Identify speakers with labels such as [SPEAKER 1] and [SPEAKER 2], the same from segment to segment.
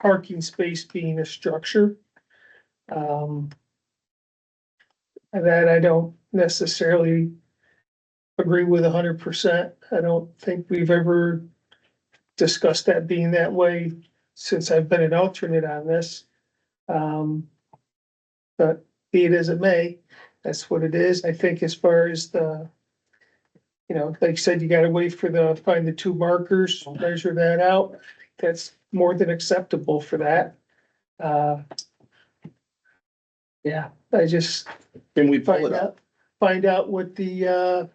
[SPEAKER 1] parking space being a structure. Um. That I don't necessarily agree with hundred percent. I don't think we've ever discussed that being that way since I've been an alternate on this. Um. But be it as it may, that's what it is. I think as far as the. You know, like you said, you gotta wait for the, find the two markers, measure that out. That's more than acceptable for that. Uh. Yeah, I just
[SPEAKER 2] Can we pull
[SPEAKER 1] find
[SPEAKER 2] it up?
[SPEAKER 1] out, find out what the, uh.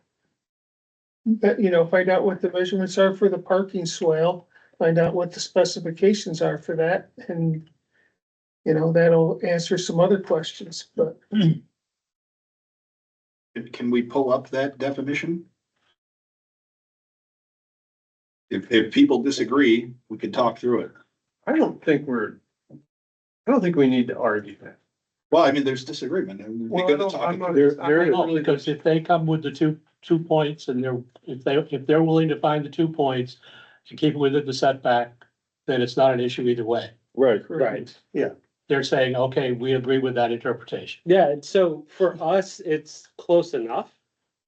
[SPEAKER 1] That, you know, find out what the measurements are for the parking swale, find out what the specifications are for that and. You know, that'll answer some other questions, but
[SPEAKER 2] Can we pull up that definition? If, if people disagree, we could talk through it.
[SPEAKER 3] I don't think we're, I don't think we need to argue that.
[SPEAKER 2] Well, I mean, there's disagreement and we
[SPEAKER 3] Well, I
[SPEAKER 2] gotta
[SPEAKER 3] don't-
[SPEAKER 2] talk.
[SPEAKER 3] I'm
[SPEAKER 2] about
[SPEAKER 3] not-
[SPEAKER 2] it.
[SPEAKER 4] There,
[SPEAKER 3] I
[SPEAKER 4] there is
[SPEAKER 3] know,
[SPEAKER 4] really,
[SPEAKER 3] because-
[SPEAKER 4] because if they come with the two, two points and they're, if they, if they're willing to find the two points and keep within the setback, then it's not an issue either way.
[SPEAKER 5] Right,
[SPEAKER 1] Right.
[SPEAKER 3] Yeah.
[SPEAKER 4] They're saying, okay, we agree with that interpretation.
[SPEAKER 5] yeah, and so for us, it's close enough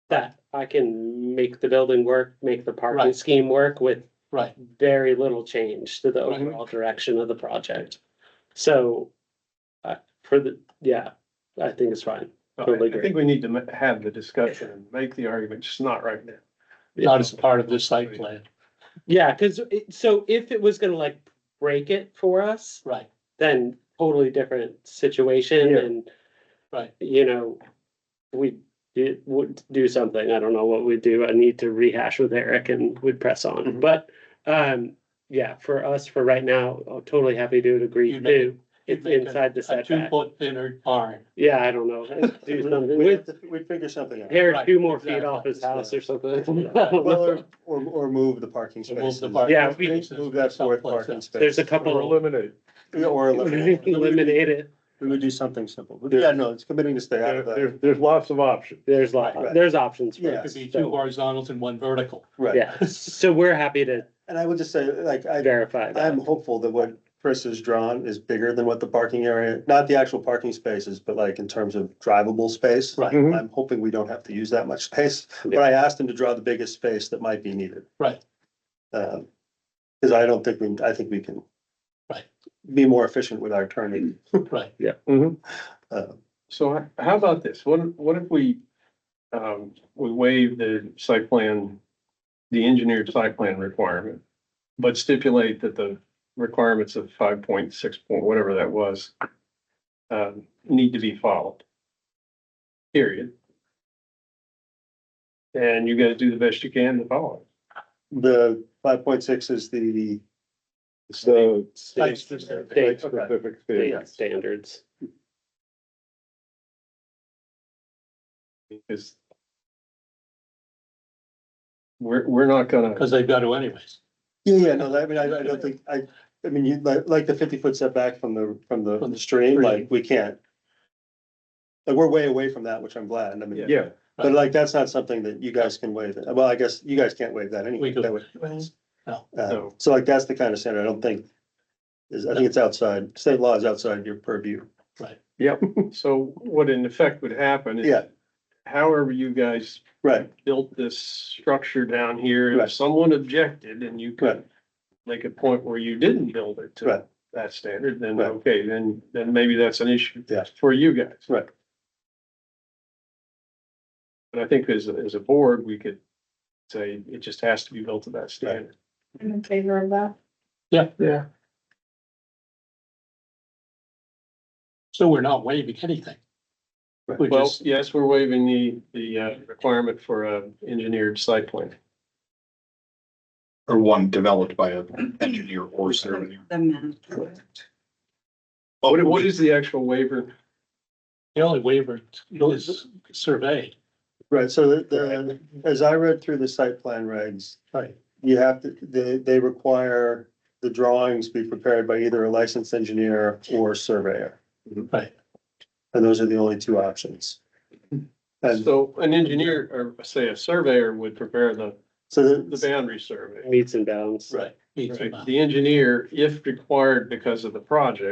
[SPEAKER 5] that I can make the building work, make the parking
[SPEAKER 4] Right.
[SPEAKER 5] scheme work with
[SPEAKER 4] Right.
[SPEAKER 5] very little change to the
[SPEAKER 4] Right.
[SPEAKER 5] overall direction of the project. So, uh, for the, yeah, I think it's fine.
[SPEAKER 3] I
[SPEAKER 5] Totally
[SPEAKER 3] I
[SPEAKER 5] agree.
[SPEAKER 3] think we need to ma- have the discussion and make the argument, just not right now.
[SPEAKER 4] Not as part of this site plan.
[SPEAKER 5] Yeah, cause it, so if it was gonna like break it for us,
[SPEAKER 4] Right,
[SPEAKER 5] then totally different situation
[SPEAKER 3] Yeah.
[SPEAKER 5] and,
[SPEAKER 4] right.
[SPEAKER 5] you know, we it would do something. I don't know what we'd do. I need to rehash with Eric and we'd press on,
[SPEAKER 4] Mm-hmm.
[SPEAKER 3] Mhm.
[SPEAKER 5] but, um, yeah, for us, for right now, I'm totally happy to agree
[SPEAKER 4] You'd make
[SPEAKER 5] too. It's inside the
[SPEAKER 4] A two
[SPEAKER 5] setback.
[SPEAKER 4] foot thinner barn.
[SPEAKER 5] Yeah, I don't know. Do something with,
[SPEAKER 3] We'd figure something out.
[SPEAKER 5] hair
[SPEAKER 4] Right,
[SPEAKER 5] two more feet
[SPEAKER 4] exactly.
[SPEAKER 5] off his house or something. I don't know.
[SPEAKER 6] Well, or, or move the parking
[SPEAKER 4] So move
[SPEAKER 6] spaces.
[SPEAKER 4] the parking
[SPEAKER 5] Yeah, we-
[SPEAKER 4] spaces
[SPEAKER 6] Move that fourth
[SPEAKER 4] someplace
[SPEAKER 6] parking
[SPEAKER 4] else.
[SPEAKER 6] space.
[SPEAKER 5] There's a
[SPEAKER 3] Or
[SPEAKER 5] couple,
[SPEAKER 3] eliminate.
[SPEAKER 6] Or eliminate. it.
[SPEAKER 5] eliminate it.
[SPEAKER 6] We would do something simple. But yeah, no, it's committing to stay out
[SPEAKER 3] There,
[SPEAKER 6] of
[SPEAKER 3] there-
[SPEAKER 6] that.
[SPEAKER 3] there's lots of options.
[SPEAKER 5] There's lot,
[SPEAKER 6] Right.
[SPEAKER 5] there's options for
[SPEAKER 6] Yeah.
[SPEAKER 4] Could be
[SPEAKER 5] it.
[SPEAKER 4] two
[SPEAKER 5] So,
[SPEAKER 4] horizontals and one vertical.
[SPEAKER 6] Right.
[SPEAKER 5] Yeah, so we're happy to
[SPEAKER 6] And I would just say, like, I,
[SPEAKER 5] verify that.
[SPEAKER 6] I'm hopeful that what Chris has drawn is bigger than what the parking area, not the actual parking spaces, but like in terms of drivable space.
[SPEAKER 4] Right.
[SPEAKER 3] Mhm.
[SPEAKER 6] I'm hoping we don't have to use that much space, but I asked him to draw the biggest space that might be needed.
[SPEAKER 4] Right.
[SPEAKER 6] Um, cause I don't think we, I think we can.
[SPEAKER 4] Right.
[SPEAKER 6] Be more efficient with our turning,
[SPEAKER 4] Right,
[SPEAKER 6] uh,
[SPEAKER 3] So h- how about this? What, if- what if we, um, we waive the site plan, the engineered site plan requirement, but stipulate that the requirements of five point six point, whatever that was, um, need to be followed. Period. And you guys do the best you can to follow
[SPEAKER 6] The five point six is the,
[SPEAKER 3] it.
[SPEAKER 5] So-
[SPEAKER 4] Site
[SPEAKER 5] State-
[SPEAKER 3] Specific
[SPEAKER 5] state
[SPEAKER 3] thing.
[SPEAKER 5] Standards.
[SPEAKER 3] Because we're, we're not gonna.
[SPEAKER 4] because they've got to anyways,
[SPEAKER 6] yeah, yeah, no, I mean, I, I don't think, I, I mean, you, like, like the fifty foot setback from the,
[SPEAKER 4] From
[SPEAKER 6] from the
[SPEAKER 4] the
[SPEAKER 6] stream,
[SPEAKER 4] stream.
[SPEAKER 6] like, we can't. Like, we're way away from that, which I'm glad, I mean,
[SPEAKER 3] Yeah,
[SPEAKER 6] but like, that's not something that you guys can waive, well, I guess you guys can't waive that anyway.
[SPEAKER 4] We could.
[SPEAKER 6] that would-
[SPEAKER 4] No.
[SPEAKER 6] Uh,
[SPEAKER 3] No.
[SPEAKER 6] So like, that's the kind of standard, I don't think, is, I think it's outside, state law is outside your purview.
[SPEAKER 3] so what in effect would happen is.
[SPEAKER 6] Yeah.
[SPEAKER 3] However you guys
[SPEAKER 6] Right,
[SPEAKER 3] built this structure down here,
[SPEAKER 6] Right.
[SPEAKER 3] if someone objected and you
[SPEAKER 6] right,
[SPEAKER 3] could make a point where you didn't build it
[SPEAKER 6] Right.
[SPEAKER 3] to that standard, then
[SPEAKER 6] Right.
[SPEAKER 3] okay, then, then maybe that's an issue.
[SPEAKER 6] Yeah.
[SPEAKER 3] For you guys.
[SPEAKER 6] Right.
[SPEAKER 3] But I think as, a- as a board, we could say it just has to be built to that standard.
[SPEAKER 7] I'm in favor of that.
[SPEAKER 1] yeah,
[SPEAKER 4] so we're not waiving anything.
[SPEAKER 6] Right.
[SPEAKER 4] We
[SPEAKER 3] Well,
[SPEAKER 4] just,
[SPEAKER 3] yes, we're waiving the, the uh, requirement for a engineered site plan.
[SPEAKER 2] Or one developed by an engineer or surveyor.
[SPEAKER 7] The men.
[SPEAKER 3] What, what is the actual waiver?
[SPEAKER 4] the only waiver is surveyed.
[SPEAKER 6] right, so the, the, as I read through the site plan regs,
[SPEAKER 4] Right.
[SPEAKER 6] you have to, they, they require the drawings be prepared by either a licensed engineer or surveyor.
[SPEAKER 4] Right.
[SPEAKER 6] And those are the only two options. And
[SPEAKER 3] So an engineer, or say a surveyor would prepare the,
[SPEAKER 6] so
[SPEAKER 3] the
[SPEAKER 6] the,
[SPEAKER 3] boundary survey.
[SPEAKER 5] meets and bounds.
[SPEAKER 4] Right. be two
[SPEAKER 3] Right,
[SPEAKER 4] miles.
[SPEAKER 3] the engineer, if required because of the project.